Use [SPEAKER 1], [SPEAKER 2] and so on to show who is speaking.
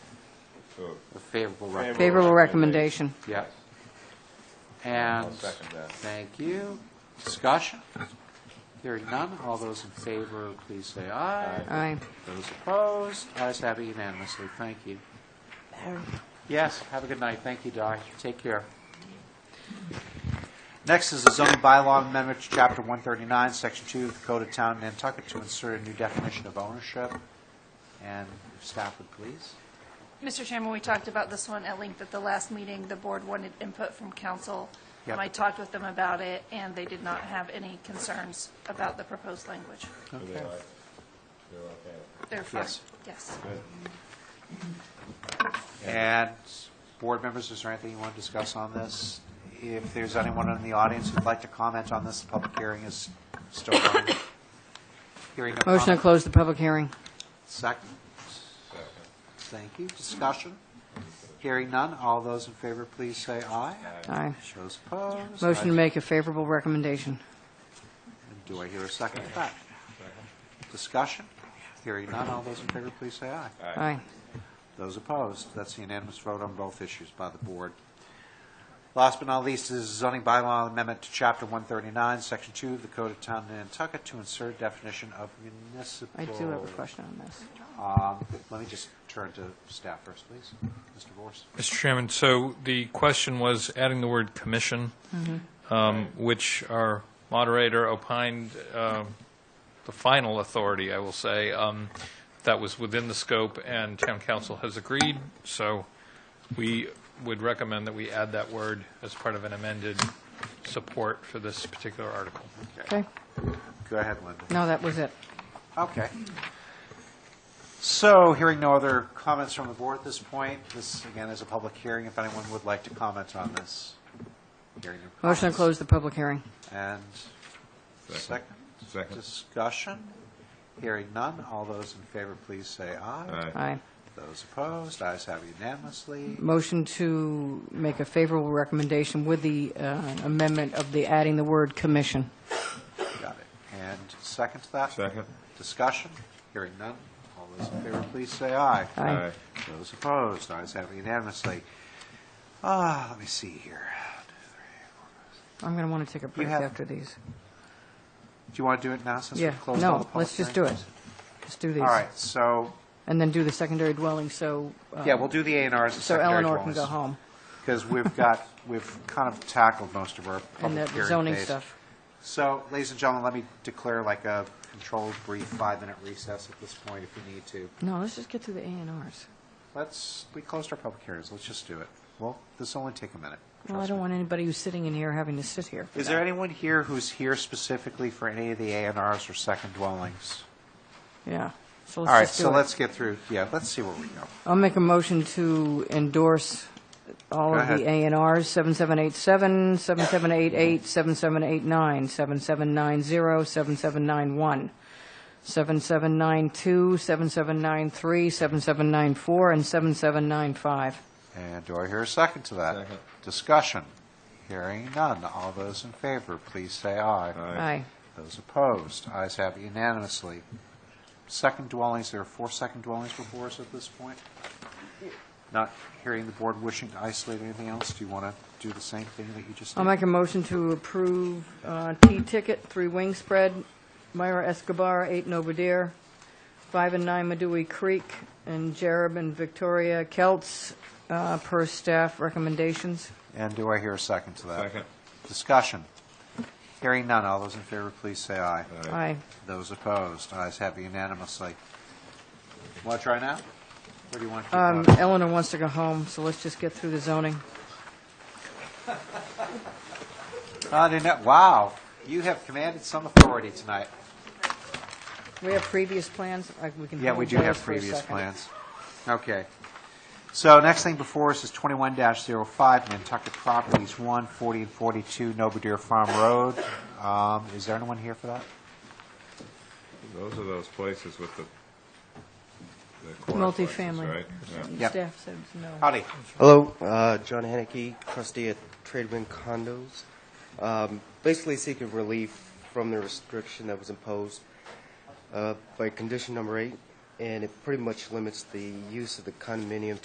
[SPEAKER 1] So,
[SPEAKER 2] A favorable recommendation.
[SPEAKER 3] Favorable recommendation.
[SPEAKER 2] Yep. And,
[SPEAKER 1] I'll second that.
[SPEAKER 2] thank you. Discussion? Hearing none, all those in favor, please say aye.
[SPEAKER 3] Aye.
[SPEAKER 2] Those opposed, ayes have it unanimously, thank you. Yes, have a good night, thank you, Di, take care. Next is the zoning bylaw amendment to Chapter 139, Section 2 of the Code of Town of Nantucket to insert a new definition of ownership, and if staff would please.
[SPEAKER 4] Mr. Chairman, we talked about this one at length at the last meeting. The board wanted input from council.
[SPEAKER 2] Yep.
[SPEAKER 4] Um, I talked with them about it, and they did not have any concerns about the proposed language.
[SPEAKER 1] are they like, they're okay?
[SPEAKER 4] They're fine.
[SPEAKER 2] Uh, Yes.
[SPEAKER 4] Yes.
[SPEAKER 2] And, board members, is there anything you want to discuss on this? If there's anyone in the audience who'd like to comment on this, the public hearing is still on. Hearing no
[SPEAKER 3] Motion to
[SPEAKER 2] comment.
[SPEAKER 3] close the public hearing.
[SPEAKER 2] Second. Thank you. Discussion? Hearing none. All those in favor, please say aye.
[SPEAKER 3] Aye.
[SPEAKER 2] Shows opposed.
[SPEAKER 3] Motion to make a favorable recommendation.
[SPEAKER 2] Do I hear a second to that? Discussion? Hearing none. All those in favor, please say aye.
[SPEAKER 3] Aye.
[SPEAKER 2] Those opposed, that's the unanimous vote on both issues by the board. Last but not least is zoning bylaw amendment to Chapter 139, Section 2 of the Code of Town of Nantucket to insert definition of municipal.
[SPEAKER 3] I do have a question on this.
[SPEAKER 2] Um, Let me just turn to staff first, please. Mr. Vorse?
[SPEAKER 5] Mr. Chairman, so the question was adding the word "commission," um, which our moderator opined, um, the final authority, I will say, um, that was within the scope, and town council has agreed, so we would recommend that we add that word as part of an amended support for this particular article.
[SPEAKER 3] Okay?
[SPEAKER 2] Go ahead, Linda.
[SPEAKER 3] No, that was it.
[SPEAKER 2] Okay. So, hearing no other comments from the board at this point, this, again, is a public hearing, if anyone would like to comment on this. hearing no
[SPEAKER 3] Motion to
[SPEAKER 2] comments.
[SPEAKER 3] close the public hearing.
[SPEAKER 2] And second?
[SPEAKER 1] Second. Second.
[SPEAKER 2] Discussion? Hearing none, all those in favor, please say aye.
[SPEAKER 3] Aye.
[SPEAKER 2] Those opposed, ayes have unanimously.
[SPEAKER 3] Motion to make a favorable recommendation with the uh, amendment of the adding the word commission.
[SPEAKER 2] Got it. And second to that?
[SPEAKER 1] Second.
[SPEAKER 2] Discussion? Hearing none, all those in favor, please say aye.
[SPEAKER 3] Aye.
[SPEAKER 2] Those opposed, ayes have unanimously. Ah, let me see here.
[SPEAKER 3] I'm going to want to take a break
[SPEAKER 2] have-
[SPEAKER 3] after these.
[SPEAKER 2] Do you want to do it now since
[SPEAKER 3] Yeah,
[SPEAKER 2] we've closed all the
[SPEAKER 3] no,
[SPEAKER 2] public
[SPEAKER 3] let's just do it.
[SPEAKER 2] hearings?
[SPEAKER 3] Let's do these.
[SPEAKER 2] All right, so,
[SPEAKER 3] And then do the secondary dwelling, so. uh,
[SPEAKER 2] yeah, we'll do the A and Rs and
[SPEAKER 3] So
[SPEAKER 2] secondary
[SPEAKER 3] Eleanor can go home.
[SPEAKER 2] Because we've got, we've kind of tackled most of our
[SPEAKER 3] And
[SPEAKER 2] public
[SPEAKER 3] the
[SPEAKER 2] hearing
[SPEAKER 3] zoning
[SPEAKER 2] phase.
[SPEAKER 3] stuff.
[SPEAKER 2] So, ladies and gentlemen, let me declare like a controlled brief five-minute recess at this point if we need to.
[SPEAKER 3] No, let's just get through the A and Rs.
[SPEAKER 2] Let's, we closed our public hearings, let's just do it. Well, this'll only take a minute.
[SPEAKER 3] Well, I
[SPEAKER 2] trust
[SPEAKER 3] don't
[SPEAKER 2] me.
[SPEAKER 3] want anybody who's sitting in here having to sit here. for
[SPEAKER 2] Is there
[SPEAKER 3] that.
[SPEAKER 2] anyone here who's here specifically for any of the A and Rs or second dwellings?
[SPEAKER 3] Yeah. So
[SPEAKER 2] All right,
[SPEAKER 3] let's just
[SPEAKER 2] so
[SPEAKER 3] do it.
[SPEAKER 2] let's get through, yeah, let's see where we go.
[SPEAKER 3] I'll make a motion to endorse all
[SPEAKER 2] Go
[SPEAKER 3] of the A
[SPEAKER 2] ahead.
[SPEAKER 3] and Rs, 7787, 7788, 7789, 7790, 7791, 7792, 7793, 7794, and 7795.
[SPEAKER 2] And do I hear a second to that?
[SPEAKER 1] Second.
[SPEAKER 2] Discussion. Hearing none. All those in favor, please say aye.
[SPEAKER 3] Aye.
[SPEAKER 2] Those opposed, ayes have it unanimously. Second dwellings, there are four second dwellings before us at this point. Not hearing the board wishing to isolate anything else, do you want to do the same thing that you just did?
[SPEAKER 3] I'll make a motion to approve uh, T-Ticket, Three Wing Spread, Myra Escobar, Eight Novadear, Five and Nine Medui Creek, and Jerem and Victoria Kelts, uh, per staff recommendations.
[SPEAKER 2] And do I hear a second to that?
[SPEAKER 1] Second.
[SPEAKER 2] Discussion. Hearing none. All those in favor, please say aye.
[SPEAKER 3] Aye.
[SPEAKER 2] Those opposed, ayes have it unanimously. Want to try now? Or do you want to keep
[SPEAKER 3] Um,
[SPEAKER 2] going?
[SPEAKER 3] Eleanor wants to go home, so let's just get through the zoning.
[SPEAKER 2] I didn't know- wow, you have commanded some authority tonight.
[SPEAKER 3] We have previous plans, Like, we can.
[SPEAKER 2] Yeah,
[SPEAKER 3] hold
[SPEAKER 2] we do
[SPEAKER 3] those
[SPEAKER 2] have
[SPEAKER 3] for a
[SPEAKER 2] previous
[SPEAKER 3] second.
[SPEAKER 2] plans. Okay. So next thing before us is twenty-one 5 Nantucket Properties, one forty and forty-two Nobodere Farm Road. Um, is there anyone here for that?
[SPEAKER 1] Those are those places with the, the corner places,
[SPEAKER 3] Multifamily.
[SPEAKER 1] right? Yeah.
[SPEAKER 2] Yep.
[SPEAKER 3] Staff says no.
[SPEAKER 2] Howdy.
[SPEAKER 6] Hello, uh, John Haneke, trustee at Tradewin Condos. Um, Basically seeking relief from the restriction that was imposed uh, by condition number eight, and it pretty much limits the use of the condominium